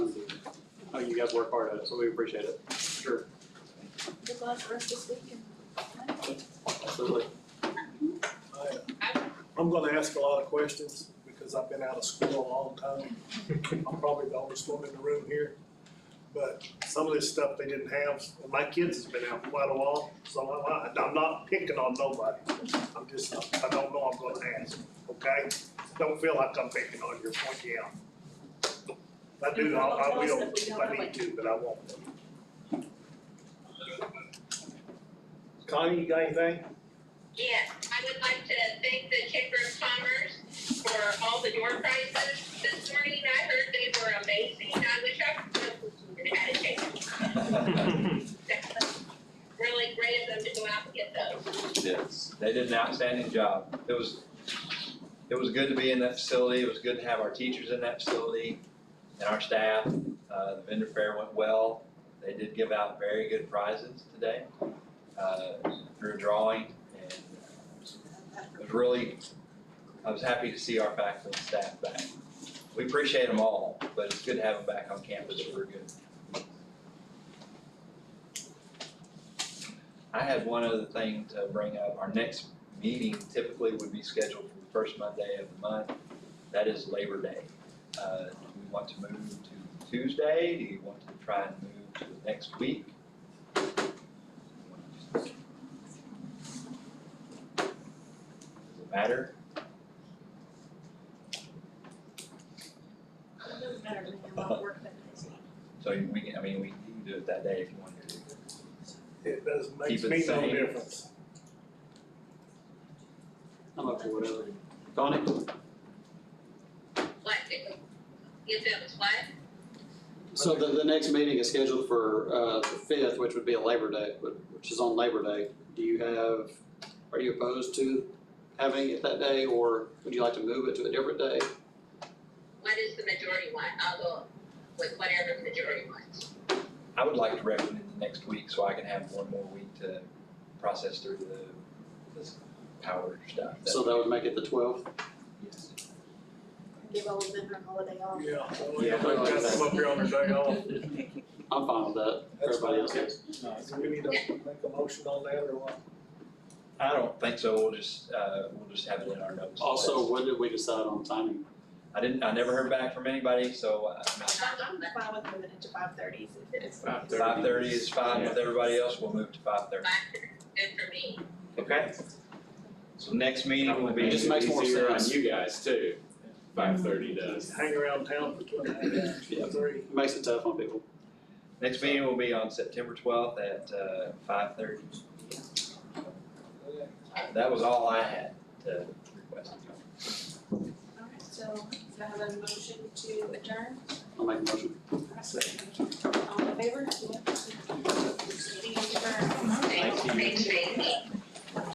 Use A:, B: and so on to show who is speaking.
A: Oh, guys work hard at it, so we appreciate it. Sure,
B: Good luck for us this weekend.
A: absolutely.
C: I, I'm gonna ask a lot of questions because I've been out of school a long time. I'm probably the oldest one in the room here. But some of this stuff they didn't have, and my kids has been out quite a while, so I'm, I- I'm not picking on nobody. I'm just, I don't know, I'm gonna ask, okay? Don't feel like I'm picking on you, or pointing out. If I do, I, I
B: Tell us
C: will,
B: if we
C: if
B: don't
C: I
B: know
C: need
B: it.
C: to, but I won't. Connie, you got anything?
D: Yes, I would like to thank the Chamber of Commerce for all the door prizes. This morning I heard they were amazing. I wish I could have had a chance. Really great of them to go out and get those.
E: Yes, they did an outstanding job. It was, it was good to be in that facility, it was good to have our teachers in that facility and our staff. Uh, the vendor fair went well, they did give out very good prizes today, uh, through drawing and uh, it was really, I was happy to see our faculty and staff back. We appreciate them all, but it's good to have them back on campus, we're good. I had one other thing to bring up. Our next meeting typically would be scheduled for the first Monday of the month. That is Labor Day. Uh, do we want to move to Tuesday? Do you want to try and move to the next week? Does it matter?
B: It doesn't matter to me, I'm not working that next week.
E: So you- we can, I mean, we can do it that day if you want to.
C: It does, makes
E: Keep it
C: me no
E: sane.
C: difference.
A: I'm up for whatever. Connie?
D: What, if it was what?
F: So the, the next meeting is scheduled for, uh, the fifth, which would be a Labor Day, but- which is on Labor Day. Do you have, are you opposed to having it that day, or would you like to move it to a different day?
D: What is the majority want? I'll go with whatever the majority wants.
E: I would like to recommend the next week so I can have one more week to process through the, this power stuff.
F: So that would make it the twelfth?
E: Yes.
B: Give all of them their holiday off.
C: Yeah, only
E: Yeah.
C: if they've got some up here on their day off.
F: I'm fine with that.
C: That's
F: Everybody else
C: fine.
F: is.
C: Do we need to make a motion on that or what?
E: I don't think so, we'll just, uh, we'll just have it in our notes.
F: Also, what did we decide on timing?
E: I didn't, I never heard back from anybody, so uh, I'm not,
B: I'm fine with moving it to five thirty if it is.
G: Five thirty.
E: five thirty is fine with everybody else, we'll move to five thirty.
D: Good for me.
E: Okay. So next meeting will
F: It
E: be,
F: just makes more
G: Easier on
F: sense.
G: you guys too, five thirty does.
C: Hang around town for two and a half hours,
F: Yeah.
C: three.
F: It Makes it tough on people.
E: next meeting will be on September twelfth at, uh, five thirty. That was all I had to request.
B: All right, so do I have a motion to adjourn?
F: I'll make a motion.
B: All in favor? Meeting adjourned.
D: Thanks, thanks, thanks.